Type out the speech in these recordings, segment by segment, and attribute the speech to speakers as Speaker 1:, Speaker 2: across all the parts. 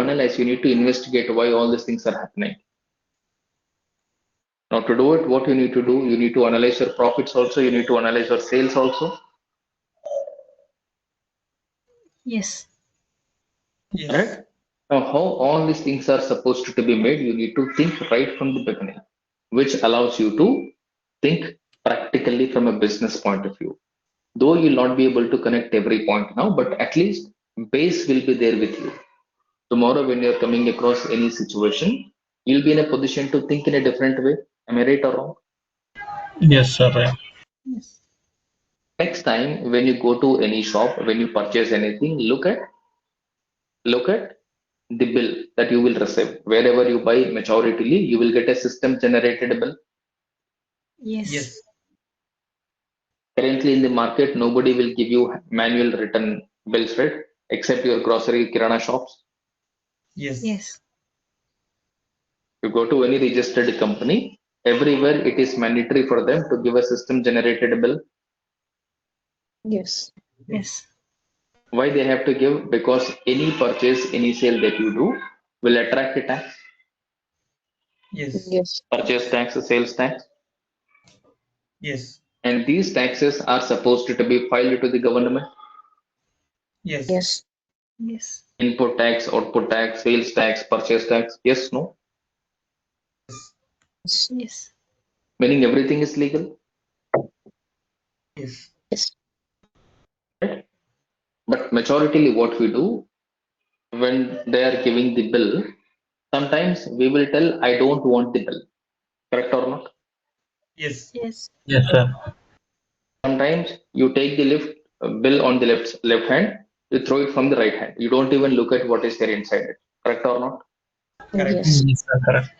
Speaker 1: analyze, you need to investigate why all these things are happening. Now, to do it, what you need to do, you need to analyze your profits also, you need to analyze your sales also,
Speaker 2: Yes.
Speaker 3: Yes.
Speaker 1: right? Now, how all these things are supposed to be made, you need to think right from the beginning, which allows you to think practically from a business point of view. Though you'll not be able to connect every point now, but at least base will be there with you. Tomorrow, when you're coming across any situation, you'll be in a position to think in a different way. Am I right or wrong?
Speaker 3: Yes, sir. Right.
Speaker 2: Yes.
Speaker 1: next time when you go to any shop when you purchase anything look at look at the bill that you will receive wherever you buy majoritarily you will get a system generated bill
Speaker 2: Yes.
Speaker 3: Yes.
Speaker 1: currently in the market nobody will give you manual written bills right except your grocery kirana shops
Speaker 3: Yes.
Speaker 2: Yes.
Speaker 1: you go to any registered company everywhere it is mandatory for them to give a system generated bill
Speaker 4: Yes.
Speaker 2: Yes.
Speaker 1: why they have to give because any purchase any sale that you do will attract a tax
Speaker 3: Yes.
Speaker 4: Yes.
Speaker 1: purchase tax sales tax
Speaker 3: Yes.
Speaker 1: and these taxes are supposed to be filed to the government
Speaker 3: Yes.
Speaker 4: Yes.
Speaker 2: Yes.
Speaker 1: input tax output tax sales tax purchase tax yes no
Speaker 4: Yes.
Speaker 2: Yes.
Speaker 1: meaning everything is legal
Speaker 3: Yes.
Speaker 4: Yes.
Speaker 1: but majoritarily what we do when they are giving the bill sometimes we will tell i don't want the bill correct or not
Speaker 3: Yes.
Speaker 2: Yes.
Speaker 3: Yes, sir.
Speaker 1: sometimes you take the lift bill on the left left hand you throw it from the right hand you don't even look at what is there inside it correct or not
Speaker 3: Correct.
Speaker 4: Yes.
Speaker 3: sir. Correct.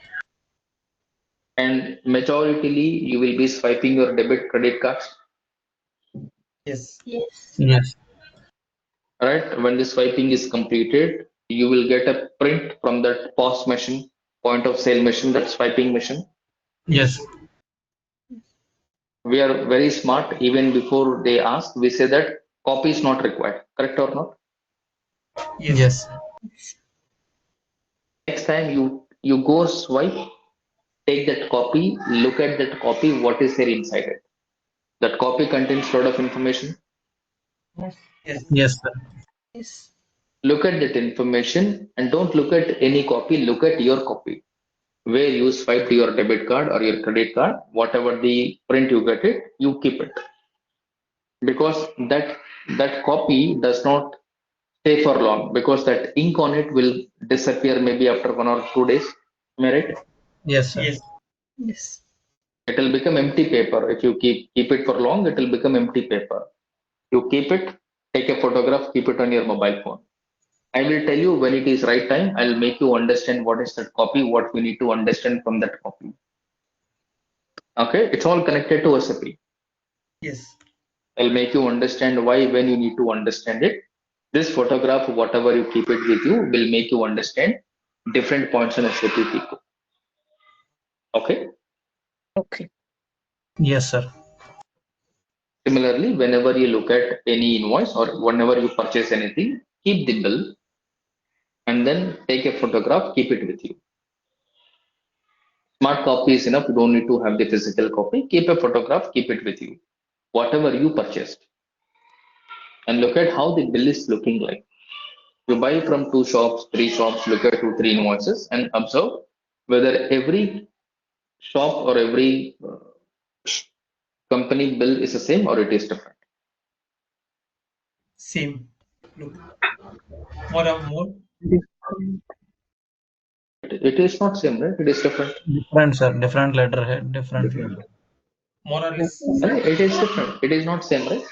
Speaker 1: and majoritarily you will be swiping your debit credit cards
Speaker 3: Yes.
Speaker 2: Yes.
Speaker 3: Yes.
Speaker 1: right when the swiping is completed you will get a print from that pos machine point of sale machine that swiping machine
Speaker 3: Yes.
Speaker 1: we are very smart even before they ask we say that copy is not required correct or not
Speaker 3: Yes.
Speaker 1: next time you you go swipe take that copy look at that copy what is there inside it that copy contains lot of information
Speaker 3: Yes. Yes, sir.
Speaker 2: Yes.
Speaker 1: look at that information and don't look at any copy look at your copy where you swiped your debit card or your credit card whatever the print you get it you keep it because that that copy does not stay for long because that ink on it will disappear maybe after one or two days am I right
Speaker 3: Yes, sir. Yes.
Speaker 2: Yes.
Speaker 1: it will become empty paper if you keep keep it for long it will become empty paper you keep it take a photograph keep it on your mobile phone i will tell you when it is right time i'll make you understand what is that copy what we need to understand from that copy okay it's all connected to sap
Speaker 3: Yes.
Speaker 1: i'll make you understand why when you need to understand it this photograph whatever you keep it with you will make you understand different points on sap people okay
Speaker 4: Okay.
Speaker 3: Yes, sir.
Speaker 1: Similarly, whenever you look at any invoice or whenever you purchase anything, keep the bill and then take a photograph, keep it with you. Smart copy is enough, you don't need to have the physical copy. Keep a photograph, keep it with you. Whatever you purchased. And look at how the bill is looking like. You buy from two shops, three shops, look at two, three invoices and observe whether every shop or every uh, company bill is the same or it is different.
Speaker 3: Same. Look. More or more.
Speaker 1: It, it is not same, right? It is different.
Speaker 3: Different, sir. Different letterhead. Different. More or less.
Speaker 1: Right? It is different. It is not same, right?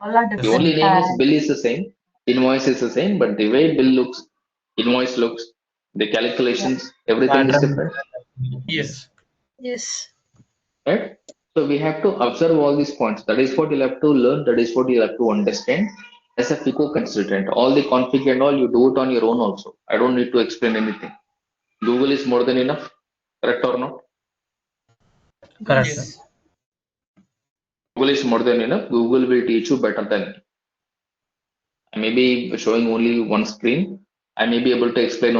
Speaker 5: All are
Speaker 1: The
Speaker 3: Yes.
Speaker 1: only
Speaker 5: different.
Speaker 1: name is
Speaker 5: uh,
Speaker 1: bill is the same, invoice is the same, but the way bill looks, invoice looks, the calculations, everything is
Speaker 3: Pattern.
Speaker 1: different,
Speaker 3: Yes.
Speaker 2: Yes.
Speaker 1: right? So we have to observe all these points. That is what you'll have to learn. That is what you'll have to understand as a FICO consultant. All the config and all you do it on your own also. I don't need to explain anything. Google is more than enough, correct or not?
Speaker 3: Correct,
Speaker 2: Yes.
Speaker 3: sir.
Speaker 1: Google is more than enough. Google will teach you better than me. I may be showing only one screen. I may be able to explain